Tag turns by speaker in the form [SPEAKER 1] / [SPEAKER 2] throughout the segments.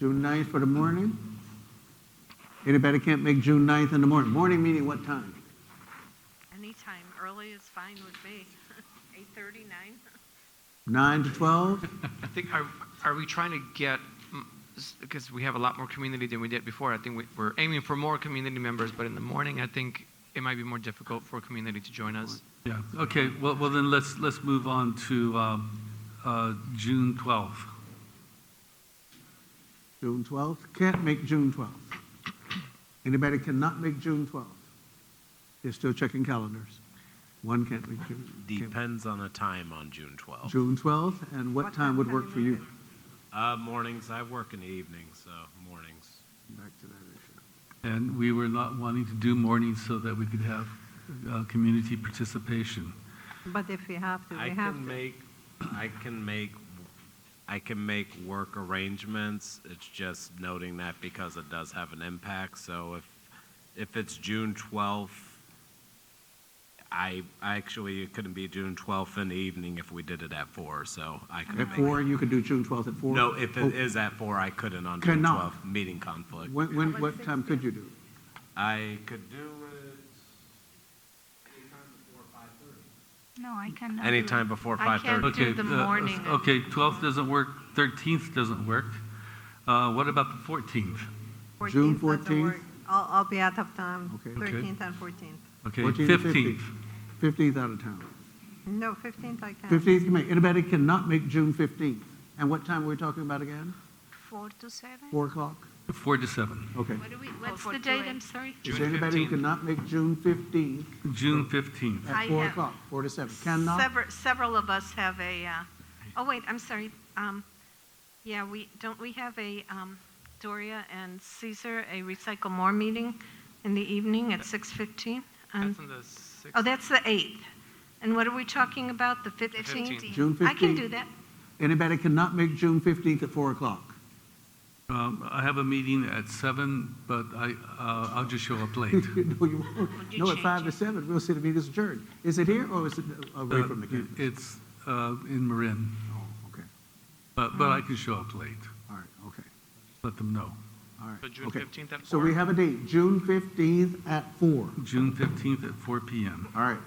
[SPEAKER 1] June 9th for the morning? Anybody can't make June 9th in the morning? Morning meeting what time?
[SPEAKER 2] Anytime, early is fine with me. Eight thirty, nine?
[SPEAKER 1] 9 to 12?
[SPEAKER 3] I think, are, are we trying to get, because we have a lot more community than we did before, I think we, we're aiming for more community members, but in the morning, I think it might be more difficult for community to join us.
[SPEAKER 4] Yeah, okay, well, well then let's, let's move on to um, uh, June 12th.
[SPEAKER 1] June 12th? Can't make June 12th. Anybody cannot make June 12th? They're still checking calendars. One can't make June. can't-
[SPEAKER 5] Depends on the time on June 12th.
[SPEAKER 1] June 12th, and what time would work for you?
[SPEAKER 5] Uh, mornings, I work in the evening, so mornings.
[SPEAKER 1] Back to that issue.
[SPEAKER 4] And we were not wanting to do mornings so that we could have uh, community participation.
[SPEAKER 2] But if we have to,
[SPEAKER 5] I
[SPEAKER 2] we have
[SPEAKER 5] can
[SPEAKER 2] to.
[SPEAKER 5] make, I can make, I can make work arrangements. It's just noting that because it does have an impact. So if, if it's June 12th, I, I actually, it couldn't be June 12th in the evening if we did it at four, so I couldn't
[SPEAKER 1] At
[SPEAKER 5] make.
[SPEAKER 1] 4, you could do June 12th at 4?
[SPEAKER 5] No, if it is at four, I couldn't on June
[SPEAKER 1] Cannot.
[SPEAKER 5] 12th, meeting conflict.
[SPEAKER 1] When, when, what time could you do?
[SPEAKER 5] I could do it anytime before five thirty.
[SPEAKER 6] No, I cannot.
[SPEAKER 5] Anytime before
[SPEAKER 2] I
[SPEAKER 5] five
[SPEAKER 2] can't
[SPEAKER 5] thirty.
[SPEAKER 4] Okay.
[SPEAKER 2] do the
[SPEAKER 4] uh,
[SPEAKER 2] morning.
[SPEAKER 4] Okay, 12th doesn't work, 13th doesn't work. Uh, What about the 14th?
[SPEAKER 1] June
[SPEAKER 7] 14th doesn't
[SPEAKER 1] 14th?
[SPEAKER 7] work. I'll, I'll be out of time,
[SPEAKER 1] Okay.
[SPEAKER 4] Okay.
[SPEAKER 7] 13th and 14th.
[SPEAKER 4] Okay,
[SPEAKER 1] 14th,
[SPEAKER 4] 15th.
[SPEAKER 1] 15th out of town.
[SPEAKER 7] No, 15th I can.
[SPEAKER 1] 15th can make, anybody cannot make June 15th. And what time were we talking about again?
[SPEAKER 6] Four to seven?
[SPEAKER 1] 4 o'clock?
[SPEAKER 4] 4 to 7.
[SPEAKER 1] Okay.
[SPEAKER 2] What do we, what's
[SPEAKER 6] for
[SPEAKER 2] the
[SPEAKER 6] two
[SPEAKER 2] date,
[SPEAKER 6] eight.
[SPEAKER 2] I'm sorry?
[SPEAKER 1] Is
[SPEAKER 3] June
[SPEAKER 1] there anybody who
[SPEAKER 3] 15th.
[SPEAKER 1] cannot make June 15th
[SPEAKER 4] June 15th.
[SPEAKER 2] I
[SPEAKER 1] at 4
[SPEAKER 2] have-
[SPEAKER 1] o'clock, 4 to 7? Cannot?
[SPEAKER 2] Sever- Several of us have a, uh, oh, wait, I'm sorry. Um, Yeah, we, don't we have a um, Doria and Caesar, a Recycle More meeting in the evening at 6:15? on-
[SPEAKER 3] That's on the sixth.
[SPEAKER 2] Oh, that's the 8th. And what are we talking about, the
[SPEAKER 3] 15th.
[SPEAKER 2] 15th?
[SPEAKER 1] June 15th?
[SPEAKER 2] I can do that.
[SPEAKER 1] Anybody cannot make June 15th at 4 o'clock?
[SPEAKER 4] Um, I have a meeting at 7, but I, uh, I'll just show up late.
[SPEAKER 1] No, you won't.
[SPEAKER 2] Would you
[SPEAKER 1] No, at
[SPEAKER 2] change
[SPEAKER 1] 5 to
[SPEAKER 2] it?
[SPEAKER 1] 7, we'll see the meeting's adjourned. Is it here or is it away
[SPEAKER 4] Uh,
[SPEAKER 1] from the campus?
[SPEAKER 4] It's uh, in Marin,
[SPEAKER 1] Oh, okay,
[SPEAKER 4] but, but I can show up late.
[SPEAKER 1] all right, okay,
[SPEAKER 4] Let them know.
[SPEAKER 1] all right.
[SPEAKER 3] So June
[SPEAKER 1] okay.
[SPEAKER 3] 15th at
[SPEAKER 1] So we
[SPEAKER 3] 4?
[SPEAKER 1] have a date, June 15th at 4.
[SPEAKER 4] June 15th at 4 PM,
[SPEAKER 1] All right,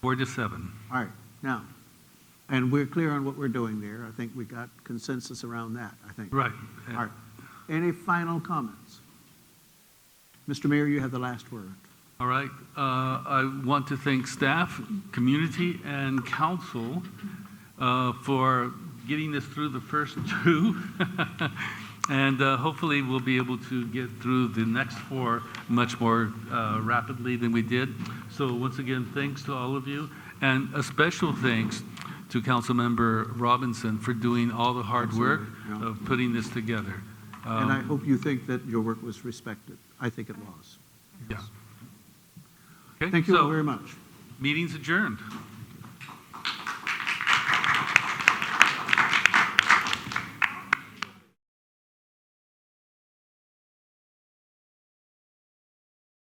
[SPEAKER 4] 4 to 7.
[SPEAKER 1] all right, now, and we're clear on what we're doing there. I think we got consensus around that, I think.
[SPEAKER 4] Right.
[SPEAKER 1] All right. Any final comments? Mr. Mayor, you have the last word.
[SPEAKER 4] All right. Uh, I want to thank staff, community, and council uh, for getting this through the first two. And uh, hopefully, we'll be able to get through the next four much more uh, rapidly than we did. So once again, thanks to all of you. And a special thanks to Councilmember Robinson for doing all the hard work
[SPEAKER 1] Absolutely, yeah.
[SPEAKER 4] of putting this together.
[SPEAKER 1] And
[SPEAKER 4] Um,
[SPEAKER 1] I hope you think that your work was respected. I think it was.
[SPEAKER 4] Yeah. Okay,
[SPEAKER 1] Thank you all
[SPEAKER 4] so
[SPEAKER 1] very much.
[SPEAKER 4] Meeting's adjourned.